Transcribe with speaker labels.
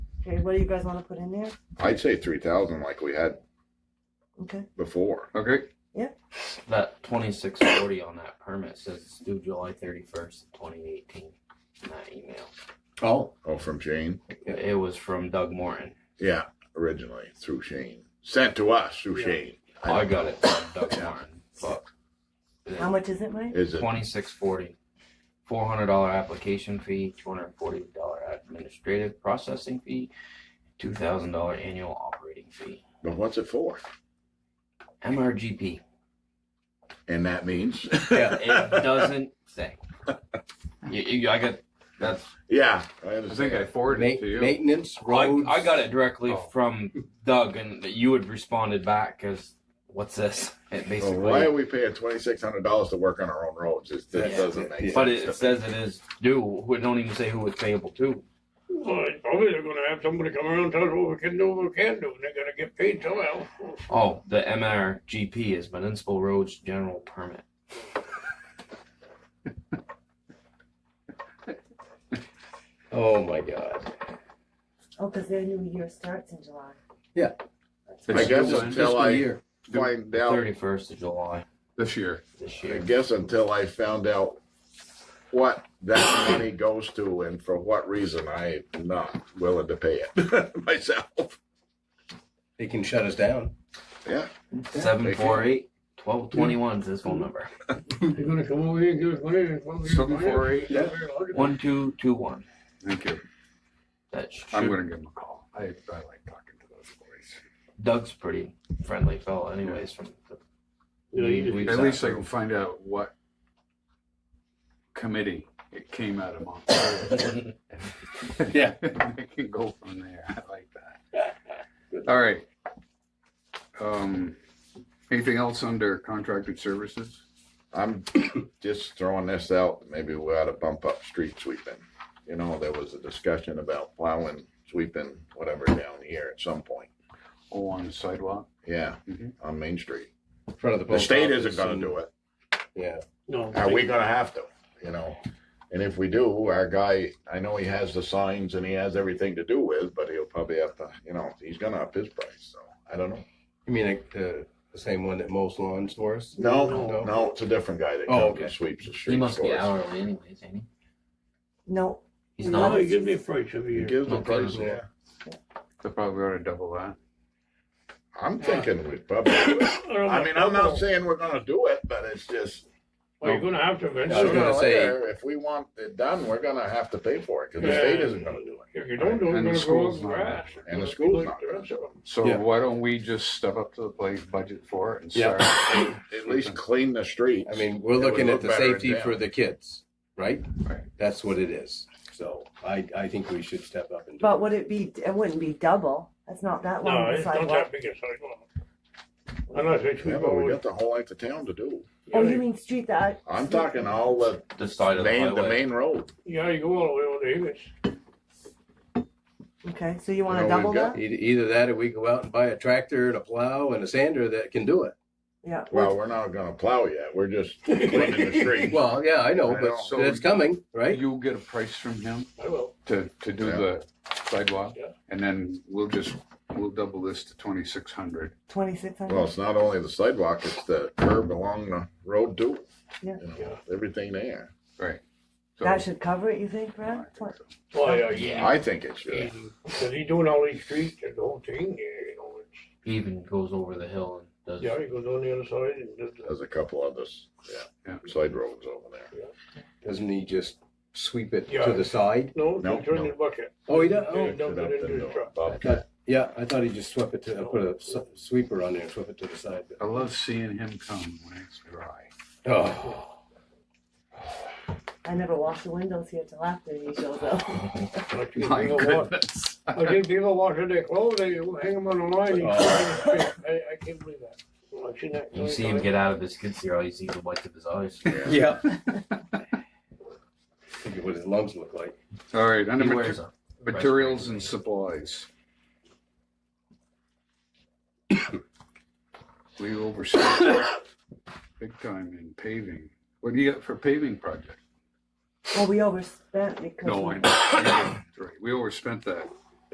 Speaker 1: Okay, what do you guys want to put in there?
Speaker 2: I'd say three thousand like we had
Speaker 1: Okay.
Speaker 2: before.
Speaker 3: Okay.
Speaker 4: Oh, That twenty-six forty on that permit says it's due July thirty-first, twenty eighteen, in that email.
Speaker 2: Oh. Oh, from Shane?
Speaker 4: It it was from Doug Morton.
Speaker 2: Yeah, originally through Shane. Sent to us through
Speaker 3: Yeah.
Speaker 2: Shane.
Speaker 4: I got it from Doug
Speaker 2: Yeah.
Speaker 4: Morton, but.
Speaker 1: How much is it, Mike?
Speaker 2: Is it?
Speaker 4: Twenty-six forty. Four hundred dollar application fee, two hundred and forty dollar administrative processing fee, two thousand dollar annual operating fee.
Speaker 2: But what's it for?
Speaker 4: MRGP.
Speaker 2: And that means.
Speaker 4: It doesn't say. You, you, I got, that's
Speaker 2: yeah, I
Speaker 3: I think I
Speaker 2: understand.
Speaker 3: forwarded it to you.
Speaker 5: Maintenance, roads.
Speaker 4: I, I got it directly
Speaker 3: Oh.
Speaker 4: from Doug, and you had responded back because what's this? It
Speaker 2: So
Speaker 4: basically,
Speaker 2: Oh, why are we paying twenty six hundred dollars to work on our own roads? It, that
Speaker 4: Yeah.
Speaker 2: doesn't make sense.
Speaker 4: but it, says it is due. We don't even say who it's payable to.
Speaker 6: Well, it's probably they're gonna have somebody come around and tell us what we can do, what we can't do, and they're gonna get paid somehow.
Speaker 4: Oh, the MRGP is Municipal Roads General Permit.
Speaker 5: Oh my God.
Speaker 1: Oh, because their new year starts in July.
Speaker 2: I guess
Speaker 3: It's
Speaker 2: until
Speaker 5: Fiscal
Speaker 2: I
Speaker 5: year.
Speaker 2: find out.
Speaker 4: Thirty-first of July
Speaker 3: this year.
Speaker 4: this
Speaker 2: I
Speaker 4: year.
Speaker 2: guess until I found out what that money goes to and for what reason, I'm not willing to pay it myself.
Speaker 5: They can shut us down.
Speaker 2: Yeah,
Speaker 4: Seven four eight twelve twenty one is his phone number.
Speaker 6: They're gonna come over here and give us money. and come over here and give
Speaker 3: Seven
Speaker 6: us money.
Speaker 3: four eight.
Speaker 6: It's not very logical.
Speaker 4: One two two one.
Speaker 3: Thank you.
Speaker 4: That
Speaker 3: I'm
Speaker 4: should,
Speaker 3: going to give him a call. I, I like talking to those boys.
Speaker 4: Doug's pretty friendly fellow, anyways. From the,
Speaker 6: You know, you just-
Speaker 4: We've
Speaker 3: At
Speaker 4: sat
Speaker 3: least I
Speaker 4: through.
Speaker 3: can find out what committee it came out of Montclair.
Speaker 5: Yeah.
Speaker 3: I can go from there. I like that. All right. Um, anything else under contracted services?
Speaker 2: I'm just throwing this out. Maybe we ought to bump up street sweeping. You know, there was a discussion about plowing, sweeping, whatever down here at some point.
Speaker 3: Oh, on the sidewalk?
Speaker 2: Yeah,
Speaker 3: Mhm.
Speaker 2: on Main Street.
Speaker 5: In front of the
Speaker 2: The
Speaker 5: post
Speaker 2: state
Speaker 5: office
Speaker 2: isn't gonna
Speaker 5: and-
Speaker 2: do it.
Speaker 5: Yeah.
Speaker 6: No.
Speaker 2: Are we gonna have to, you know? And if we do, our guy, I know he has the signs and he has everything to do with, but he'll probably have to, you know, he's gonna up his price, so I don't know.
Speaker 5: You mean like the, the same one that mows lawns for us?
Speaker 2: No,
Speaker 5: No.
Speaker 2: no, it's a different guy that
Speaker 5: Oh,
Speaker 2: comes and
Speaker 5: okay.
Speaker 2: sweeps the
Speaker 4: he
Speaker 2: streets
Speaker 4: must be
Speaker 2: for us.
Speaker 4: hourly, anyways. Ain't he?
Speaker 1: No,
Speaker 4: He's
Speaker 1: No,
Speaker 6: Oh,
Speaker 4: not.
Speaker 6: you give me a price every
Speaker 2: He
Speaker 6: year.
Speaker 2: gives the
Speaker 4: Okay.
Speaker 2: price, yeah.
Speaker 3: They probably ought to double that.
Speaker 2: I'm thinking we probably, I mean, I'm not saying we're gonna do it, but it's just.
Speaker 6: Well, you're gonna have to
Speaker 5: I was
Speaker 6: eventually.
Speaker 2: sooner or
Speaker 5: gonna say-
Speaker 2: later, If we want it done, we're gonna have to pay for it, cause the
Speaker 6: Yeah.
Speaker 2: state isn't gonna do it,
Speaker 6: If you don't do it,
Speaker 3: And the
Speaker 6: it's gonna grow up
Speaker 3: school's not-
Speaker 6: grass.
Speaker 2: and the school's not gonna do
Speaker 3: So
Speaker 5: Yeah.
Speaker 3: why don't we just step up to the plate, budget for it, and
Speaker 5: Yeah.
Speaker 3: start?
Speaker 2: it. At least clean the streets.
Speaker 5: I mean, we're
Speaker 2: It would
Speaker 5: looking
Speaker 2: look
Speaker 5: at the
Speaker 2: better in
Speaker 5: safety for
Speaker 2: town.
Speaker 5: the kids, right?
Speaker 3: Right.
Speaker 5: That's what it is. So I, I think we should step up and do
Speaker 1: but
Speaker 5: it.
Speaker 1: would it be? It wouldn't be double. That's not that long.
Speaker 6: No,
Speaker 1: of a
Speaker 6: it's not
Speaker 1: sidewalk.
Speaker 6: that big a sidewalk. Unless they
Speaker 2: Yeah,
Speaker 6: sweep
Speaker 2: but we
Speaker 6: over.
Speaker 2: got the whole length of town to do.
Speaker 1: Oh, you mean street that?
Speaker 2: I'm talking all the
Speaker 4: The side of the
Speaker 2: main, the
Speaker 4: highway.
Speaker 2: main road.
Speaker 6: Yeah, you go all the way over to Eagles.
Speaker 1: Okay, so you want to
Speaker 2: No, we've
Speaker 1: double
Speaker 2: got-
Speaker 1: that?
Speaker 5: Either, either that or we go out and buy a tractor and a plow and a sander that can do it.
Speaker 1: Yeah.
Speaker 2: Well, we're not gonna plow yet. We're just cleaning the street.
Speaker 5: Well, yeah, I know,
Speaker 2: I
Speaker 5: but
Speaker 2: know.
Speaker 3: So-
Speaker 5: it's coming, right?
Speaker 3: You'll get a price from him
Speaker 6: I will.
Speaker 3: to, to do
Speaker 2: Yeah.
Speaker 3: the sidewalk,
Speaker 6: Yeah.
Speaker 3: and then we'll just, we'll double this to twenty-six hundred.
Speaker 1: Twenty six hundred.
Speaker 2: Well, it's not only the sidewalk, it's the curb along the road too.
Speaker 1: Yeah.
Speaker 2: You know, everything there.
Speaker 1: that should cover it. You think, Brad? Twen-
Speaker 6: Well, yeah, yeah.
Speaker 2: I think it should.
Speaker 6: Because he's doing all these streets and the whole thing, yeah, you know, it's,
Speaker 4: He even goes over the hill and does.
Speaker 6: yeah, he goes on the other side and uh, does the.
Speaker 2: There's a couple of us, yeah,
Speaker 3: Yeah.
Speaker 2: side roads over there.
Speaker 5: Doesn't he just sweep it
Speaker 6: Yeah.
Speaker 5: to the side?
Speaker 6: No,
Speaker 2: No,
Speaker 6: he turned
Speaker 2: no.
Speaker 6: his bucket.
Speaker 5: Oh, he does?
Speaker 6: Yeah,
Speaker 5: Oh,
Speaker 6: he dumped it into the truck.
Speaker 5: I thought- yeah, I thought he just swept it to, put a s- sweeper on there and swept it to the side.
Speaker 3: I love seeing him come when it's dry.
Speaker 5: Oh,
Speaker 1: I never wash the windows here till after he shows up.
Speaker 6: Like, you
Speaker 3: My
Speaker 6: know what?
Speaker 3: goodness.
Speaker 6: I think people washing their clothes, they hang them on the line. he's
Speaker 5: Oh.
Speaker 6: throwing them straight. I, I can't believe that. Well, I've seen that
Speaker 4: You
Speaker 6: many
Speaker 4: see him
Speaker 6: times.
Speaker 4: get out of his skid steer, all you see is the whites of his eyes.
Speaker 5: yeah. Think of what his lungs look like.
Speaker 3: All right, under
Speaker 4: He
Speaker 3: mater-
Speaker 4: wears a
Speaker 3: materials and supplies. We overspent big time in paving. What do you got for paving project?
Speaker 1: Well, we overspent because
Speaker 3: No,
Speaker 1: we-
Speaker 3: I know. That's right. We overspent that